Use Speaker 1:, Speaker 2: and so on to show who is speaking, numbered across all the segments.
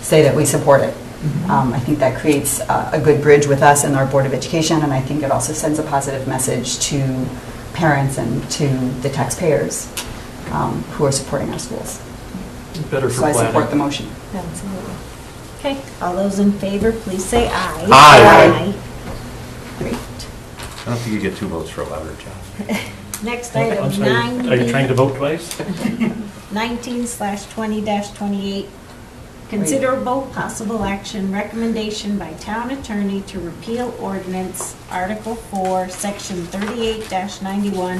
Speaker 1: say that we support it. Um, I think that creates uh, a good bridge with us and our Board of Education, and I think it also sends a positive message to parents and to the taxpayers um, who are supporting our schools.
Speaker 2: Better for
Speaker 1: So I support the
Speaker 2: planning.
Speaker 1: motion.
Speaker 3: Absolutely. Okay, all those in favor, please say aye.
Speaker 4: Aye.
Speaker 3: Aye. Great.
Speaker 4: I don't think you get two votes for a louder job.
Speaker 3: Next
Speaker 5: I'm
Speaker 3: item,
Speaker 5: sorry, Are you trying
Speaker 3: 9,
Speaker 5: to vote twice?
Speaker 3: 19 slash 20 dash 28. Considerable possible action, recommendation by town attorney to repeal ordinance Article 4, Section 38 dash 91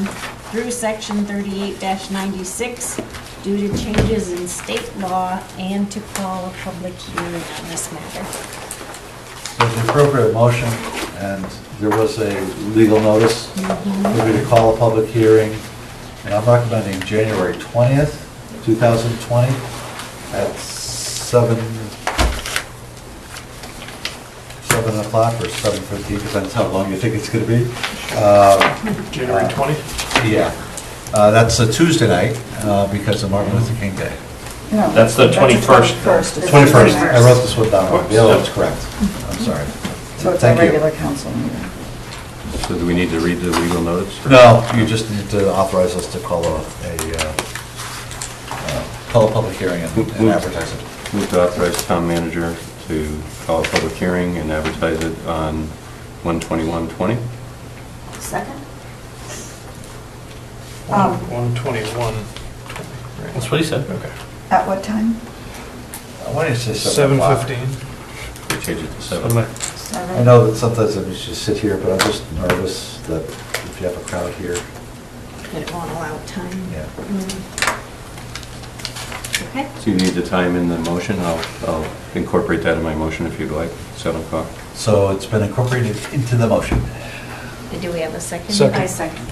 Speaker 3: through Section 38 dash 96 due to changes in state law and to call a public hearing on this matter.
Speaker 6: There's an appropriate motion, and there was a legal notice, we to call a public hearing, and I'm recommending January 20th, 2020, at 7, 7 o'clock or 7:15, depends how long you think it's going to be. Uh,
Speaker 5: January 20?
Speaker 6: Yeah, Uh, that's a Tuesday night, uh, because of Martin Luther King Day.
Speaker 1: No,
Speaker 4: That's the 21st.
Speaker 1: That's the
Speaker 6: 21st, I wrote this one down,
Speaker 4: Whoops.
Speaker 6: yeah, that's correct, I'm sorry.
Speaker 1: So it's a
Speaker 6: Thank you.
Speaker 1: regular council meeting.
Speaker 4: So do we need to read the legal notice?
Speaker 6: No, you just need to authorize us to call a, a, uh, uh, call a public hearing and
Speaker 4: Move-
Speaker 6: and advertise it.
Speaker 4: Move to authorize town manager to call a public hearing and advertise it on 12120.
Speaker 3: Second?
Speaker 1: Um,
Speaker 2: 121.
Speaker 5: That's what he said.
Speaker 2: Okay.
Speaker 1: At what time?
Speaker 6: I wanted to say seven o'clock.
Speaker 2: 7:15.
Speaker 4: We change it to
Speaker 5: I'm
Speaker 4: 7.
Speaker 5: like,
Speaker 6: I know that sometimes I just sit here, but I'm just nervous that if you have a crowd here,
Speaker 3: It won't allow time.
Speaker 6: yeah.
Speaker 3: Mm. Okay,
Speaker 4: So you need to time in the motion. I'll I'll incorporate that in my motion if you'd like, 7 o'clock.
Speaker 6: So it's been incorporated into the motion.
Speaker 3: And do we have a second?
Speaker 2: Second. I
Speaker 3: second.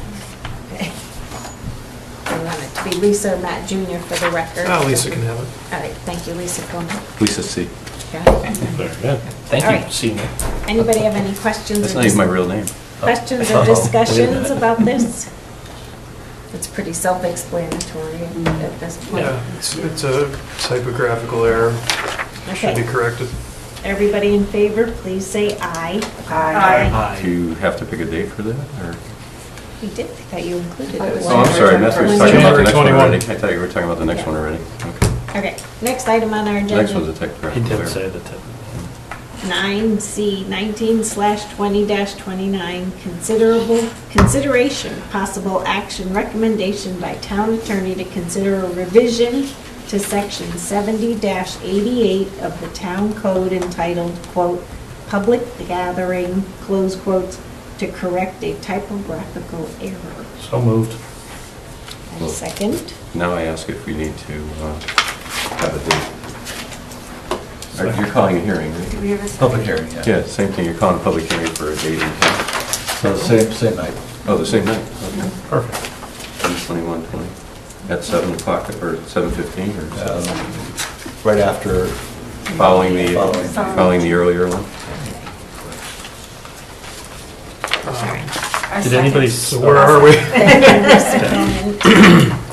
Speaker 3: We want it to be Lisa, not Junior for the record.
Speaker 2: Ah, Lisa can have it.
Speaker 3: All right, thank you, Lisa Coleman.
Speaker 4: Lisa C.
Speaker 3: Got it.
Speaker 5: Very good.
Speaker 3: All
Speaker 5: Thank you,
Speaker 3: right.
Speaker 5: senior.
Speaker 3: Anybody have any questions? or
Speaker 4: That's not even my
Speaker 3: dis-
Speaker 4: real name.
Speaker 3: Questions or
Speaker 6: Oh, wait a
Speaker 3: discussions
Speaker 6: minute.
Speaker 3: about this? It's pretty self-explanatory at this point.
Speaker 2: Yeah, it's it's a typographical error. Should be
Speaker 3: Okay.
Speaker 2: corrected.
Speaker 3: Everybody in favor, please say aye.
Speaker 4: Do you have to pick a date for that, or?
Speaker 3: We did, I thought you included it.
Speaker 4: Oh, I'm sorry, I missed- we were talking about the next one already. I thought you were talking about the next one already. Okay.
Speaker 3: Okay, next item on our agenda.
Speaker 4: Next one's a
Speaker 5: He
Speaker 4: typographical
Speaker 5: did
Speaker 4: error.
Speaker 5: say that.
Speaker 3: 9C, 19 slash 20 dash 29, considerable, consideration, possible action, recommendation by town attorney to consider a revision to section 70 dash 88 of the town code entitled, quote, "Public Gathering," close quotes, to correct a typographical error.
Speaker 5: So moved.
Speaker 3: And Second,
Speaker 4: Now I ask if we need to uh, have a date. Or You're calling a hearing, right?
Speaker 6: Public hearing, yeah.
Speaker 4: Yeah, same thing, you're calling a public hearing for a date and time.
Speaker 6: So same, same night.
Speaker 4: Oh, the same night, okay.
Speaker 5: Perfect.
Speaker 4: 2120, at 7 o'clock, or 7:15, or
Speaker 6: Um,
Speaker 4: 7?
Speaker 6: Right after,
Speaker 4: Following the,
Speaker 6: Following.
Speaker 4: following the earlier one?
Speaker 5: Did anybody?
Speaker 2: So where are we?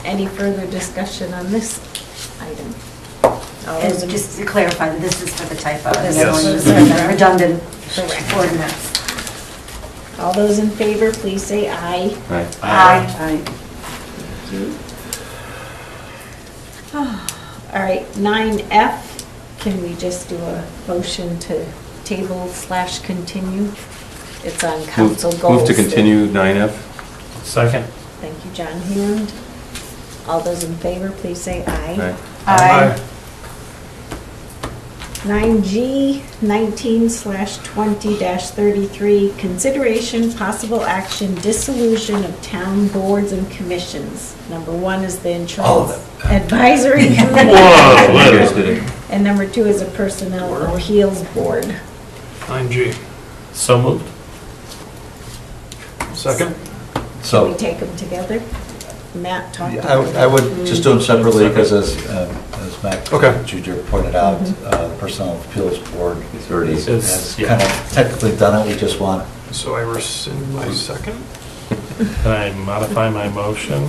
Speaker 3: any further discussion on this item? All those in-
Speaker 7: And just to clarify, that this is for the typo,
Speaker 3: This
Speaker 7: this
Speaker 2: is
Speaker 7: one is
Speaker 3: for the-
Speaker 7: a redundant
Speaker 3: Correct.
Speaker 7: ordinance.
Speaker 3: All those in favor, please say aye.
Speaker 4: Right.
Speaker 7: Aye.
Speaker 3: All right, 9F, can we just do a motion to table slash continue? It's on
Speaker 4: Move
Speaker 3: council goals.
Speaker 4: move to continue 9F?
Speaker 5: Second.
Speaker 3: Thank you, John Hand. All those in favor, please say aye.
Speaker 4: Right.
Speaker 2: Aye.
Speaker 3: 9G, 19 slash 20 dash 33, consideration, possible action, dissolution of town boards and commissions. Number one is the
Speaker 6: All of
Speaker 3: insurance
Speaker 6: them.
Speaker 3: advisory committee.
Speaker 4: You guys did it.
Speaker 3: And number two is a personnel appeals board.
Speaker 2: 9G.
Speaker 5: So moved.
Speaker 2: Second?
Speaker 3: Can we
Speaker 6: so
Speaker 3: take them together? Matt talked
Speaker 6: Yeah, I
Speaker 3: about
Speaker 6: would-
Speaker 3: it.
Speaker 6: I would just do them separately, because as, um, as
Speaker 2: Okay.
Speaker 6: Matt Junior pointed out, uh, the Personnel Appeals Board
Speaker 4: It's already-
Speaker 6: has-
Speaker 5: It's-
Speaker 6: has
Speaker 5: yeah.
Speaker 6: kind of technically done it, we just want,
Speaker 2: So I rescind my second?
Speaker 5: Can I modify my motion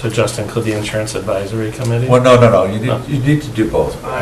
Speaker 5: to just include the insurance advisory committee?
Speaker 6: well, no, no, no, you
Speaker 5: No.
Speaker 6: need, you need to do both.
Speaker 2: Aye.